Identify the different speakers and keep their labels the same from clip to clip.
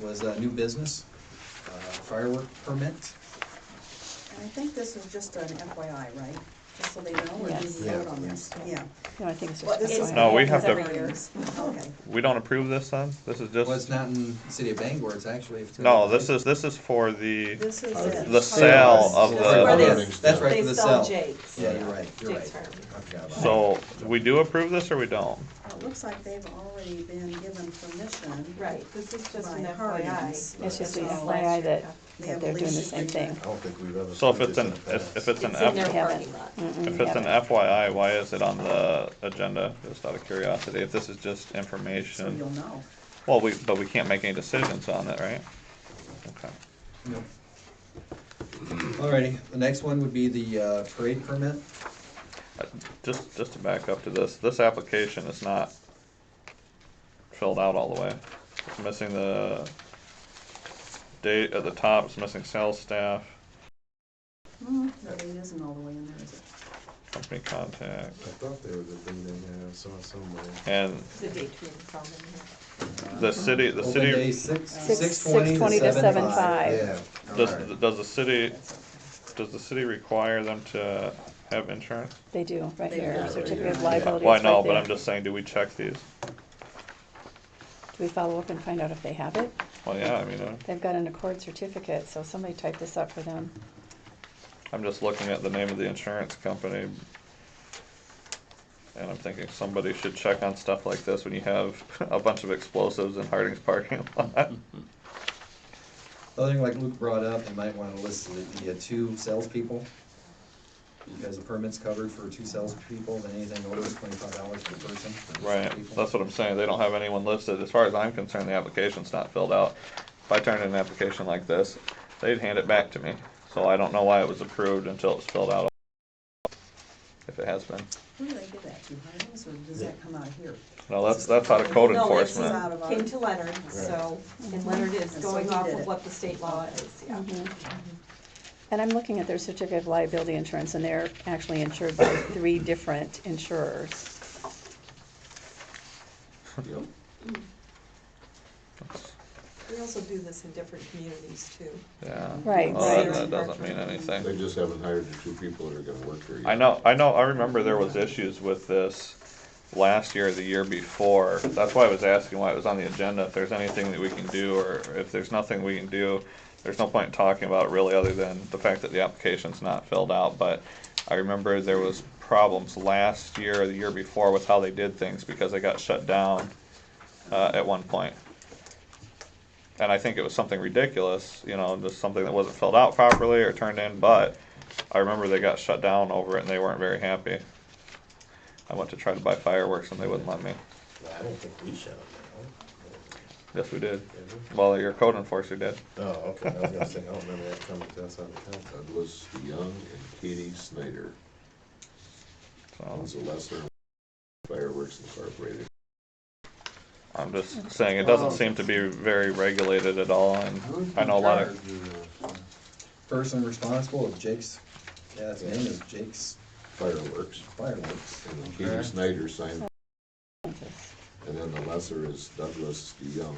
Speaker 1: was uh, new business, uh, firework permit.
Speaker 2: And I think this is just an FYI, right? Just so they know, or do we
Speaker 3: Yes.
Speaker 2: vote on this? Yeah,
Speaker 3: Yeah. No, I think it's
Speaker 2: Well,
Speaker 3: just.
Speaker 2: this is-
Speaker 3: FYI.
Speaker 4: No, we have to-
Speaker 2: every year. okay.
Speaker 4: We don't approve this then? This is
Speaker 1: Well, it's
Speaker 4: just,
Speaker 1: not in the city of Bangor, it's actually. it's-
Speaker 4: no, this is, this is for the,
Speaker 2: This is
Speaker 5: The
Speaker 2: it.
Speaker 4: Uh, the sale of
Speaker 1: Yeah,
Speaker 5: Where
Speaker 4: the,
Speaker 5: they-
Speaker 1: That's right,
Speaker 5: They
Speaker 1: the
Speaker 5: sell
Speaker 1: cell.
Speaker 5: Jake's.
Speaker 1: Yeah, you're right, you're
Speaker 5: Jake's
Speaker 1: right.
Speaker 5: Farm.
Speaker 1: I forgot about that.
Speaker 4: so we do approve this or we don't?
Speaker 2: It looks like they've already been given permission.
Speaker 5: Right, this is just
Speaker 2: by
Speaker 5: an
Speaker 2: Hardin's.
Speaker 5: FYI.
Speaker 2: It's
Speaker 3: just an
Speaker 5: That's all
Speaker 3: FYI
Speaker 5: last year.
Speaker 3: that-
Speaker 2: They
Speaker 3: That
Speaker 2: have
Speaker 3: they're
Speaker 2: a
Speaker 3: doing the
Speaker 2: lease
Speaker 3: same
Speaker 2: agreement.
Speaker 3: thing.
Speaker 6: I don't think we've ever.
Speaker 4: So if
Speaker 6: approved
Speaker 4: it's an,
Speaker 6: this in the
Speaker 4: if, if
Speaker 6: past.
Speaker 4: it's an,
Speaker 5: It's in their
Speaker 4: F-
Speaker 5: parking
Speaker 3: Haven't.
Speaker 5: lot.
Speaker 3: Mm-mm,
Speaker 4: if it's an
Speaker 3: haven't.
Speaker 4: FYI, why is it on the agenda? Just out of curiosity, if this is just
Speaker 2: So you'll
Speaker 4: information.
Speaker 2: know.
Speaker 4: Well, we, but we can't make any decisions on it, right? Okay.
Speaker 1: Nope. Alrighty, the next one would be the uh, parade permit.
Speaker 4: Uh, Just, just to back up to this, this application is not filled out all the way. It's missing the date at the top, it's missing sales staff,
Speaker 2: Hmm, no, it isn't all the way in there, is it?
Speaker 4: company contact,
Speaker 6: I thought there was a thing in there, I saw it somewhere.
Speaker 4: and
Speaker 5: It's a date between from and here.
Speaker 4: the city, the
Speaker 1: Open day
Speaker 4: city,
Speaker 1: six,
Speaker 2: Six-
Speaker 1: six twenty
Speaker 3: six-twenty
Speaker 1: to
Speaker 3: to
Speaker 1: seven five.
Speaker 3: seven-five.
Speaker 6: Yeah.
Speaker 4: does, does the city,
Speaker 2: That's okay.
Speaker 4: does the city require them to have insurance?
Speaker 3: They do, right
Speaker 2: They do.
Speaker 3: here, certificate of
Speaker 6: Yeah.
Speaker 3: liability
Speaker 4: Well, I
Speaker 3: is right
Speaker 4: know, but
Speaker 3: there.
Speaker 4: I'm just saying, do we check these?
Speaker 3: Do we follow up and find out if they have it?
Speaker 4: Well, yeah, I mean, uh,
Speaker 3: They've got an accord certificate, so somebody typed this up for them.
Speaker 4: I'm just looking at the name of the insurance company. And I'm thinking somebody should check on stuff like this when you have a bunch of explosives in Harding's parking lot.
Speaker 1: Other thing like Luke brought up, you might wanna list the, the uh, two salespeople. Because the permit's covered for two salespeople, and anything over is twenty-five dollars per person. for
Speaker 4: Right,
Speaker 1: salespeople.
Speaker 4: that's what I'm saying, they don't have anyone listed, as far as I'm concerned, the application's not filled out. If I turned in an application like this, they'd hand it back to me, so I don't know why it was approved until it was filled out. If it has been,
Speaker 2: Who do they give that to, Hardin's, or does that come out of here?
Speaker 4: no, that's, that's out of code
Speaker 5: No, this is
Speaker 4: enforcement,
Speaker 2: out of our-
Speaker 5: Came to Leonard, so, and Leonard is
Speaker 2: And so
Speaker 5: going
Speaker 2: he
Speaker 5: off
Speaker 2: did
Speaker 5: of
Speaker 2: it.
Speaker 5: what the state law is, yeah.
Speaker 3: And I'm looking at their certificate of liability insurance, and they're actually insured by three different insurers.
Speaker 1: Yep.
Speaker 5: We also do this in different communities too.
Speaker 4: yeah.
Speaker 3: Right,
Speaker 4: Well, that-
Speaker 3: right.
Speaker 4: That doesn't mean anything.
Speaker 6: They just haven't hired the two people that are gonna work here yet.
Speaker 4: I know, I know, I remember there was issues with this last year, or the year before. That's why I was asking why it was on the agenda, if there's anything that we can do, or if there's nothing we can do. There's no point in talking about it really, other than the fact that the application's not filled out, but I remember there was problems last year or the year before with how they did things, because they got shut down, uh, at one point. And I think it was something ridiculous, you know, just something that wasn't filled out properly or turned in, but I remember they got shut down over it and they weren't very happy. I went to try to buy fireworks and they wouldn't let me.
Speaker 7: I don't think we shut them
Speaker 4: Yes, we did. Well, your code enforcer did.
Speaker 7: down. Oh, okay, I was gonna say, I don't remember that coming to us out of town.
Speaker 6: Douglas Young and Katie Snyder,
Speaker 4: So
Speaker 6: one's a lesser fireworks incorporated.
Speaker 4: I'm just saying it doesn't seem to be very regulated at all. And I know a lot of
Speaker 1: Person responsible of Jake's, yeah, his name is Jake's
Speaker 6: Fireworks,
Speaker 1: fireworks.
Speaker 6: and then Katie Snyder signed,
Speaker 3: Just-
Speaker 6: and then the lesser is Douglas Young.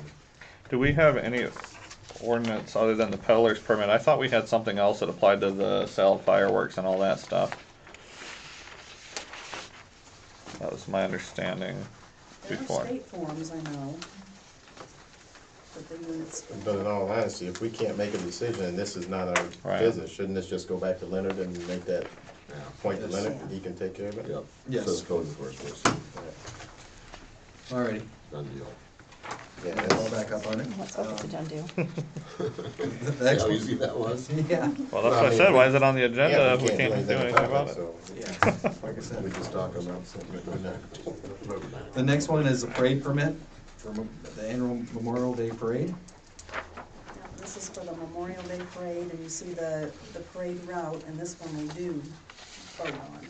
Speaker 4: do we have any ordinance other than the peddler's permit? I thought we had something else that applied to the sale of fireworks and all that stuff. That was my understanding
Speaker 2: There are
Speaker 4: before.
Speaker 2: state forms, I know. But the units,
Speaker 7: But in all honesty, if we can't make a decision, and this is not our
Speaker 4: Right.
Speaker 7: business, shouldn't this just go back to Leonard and make that
Speaker 6: Yeah,
Speaker 7: point to
Speaker 1: Yes.
Speaker 7: Leonard, and he can take care of it?
Speaker 6: yep.
Speaker 1: Yes.
Speaker 6: Says code enforcement, so,
Speaker 1: Alrighty,
Speaker 6: done deal.
Speaker 7: Yeah,
Speaker 1: I'll
Speaker 7: that's-
Speaker 1: back up on it. Uh,
Speaker 3: Let's hope it's a done deal.
Speaker 1: The
Speaker 6: See
Speaker 1: next
Speaker 6: how
Speaker 1: one-
Speaker 6: easy that was?
Speaker 1: Yeah,
Speaker 4: Well, that's
Speaker 7: Well, I
Speaker 4: what I
Speaker 7: mean,
Speaker 4: said.
Speaker 7: we-
Speaker 4: Why is it on the agenda
Speaker 7: Yeah,
Speaker 4: if uh, we can't do anything about it?
Speaker 7: so,
Speaker 1: yeah, like I
Speaker 6: We
Speaker 1: said.
Speaker 6: just talk about something that we're not.
Speaker 1: The next one is a parade permit for mo- the annual Memorial Day Parade.
Speaker 2: now, this is for the Memorial Day Parade, and you see the, the parade route, and this one we do vote on.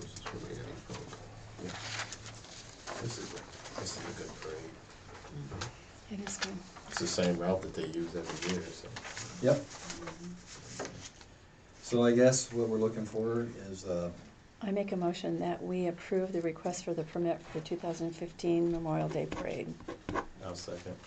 Speaker 6: This is where we had it from.
Speaker 7: This is, a- this is a good parade.
Speaker 3: It is good.
Speaker 7: It's the same route that they use every year, so.
Speaker 1: Yep. So I guess what we're looking for is, uh,
Speaker 3: I make a motion that we approve the request for the permit for the 2015 Memorial Day Parade.
Speaker 7: I'll I'll second.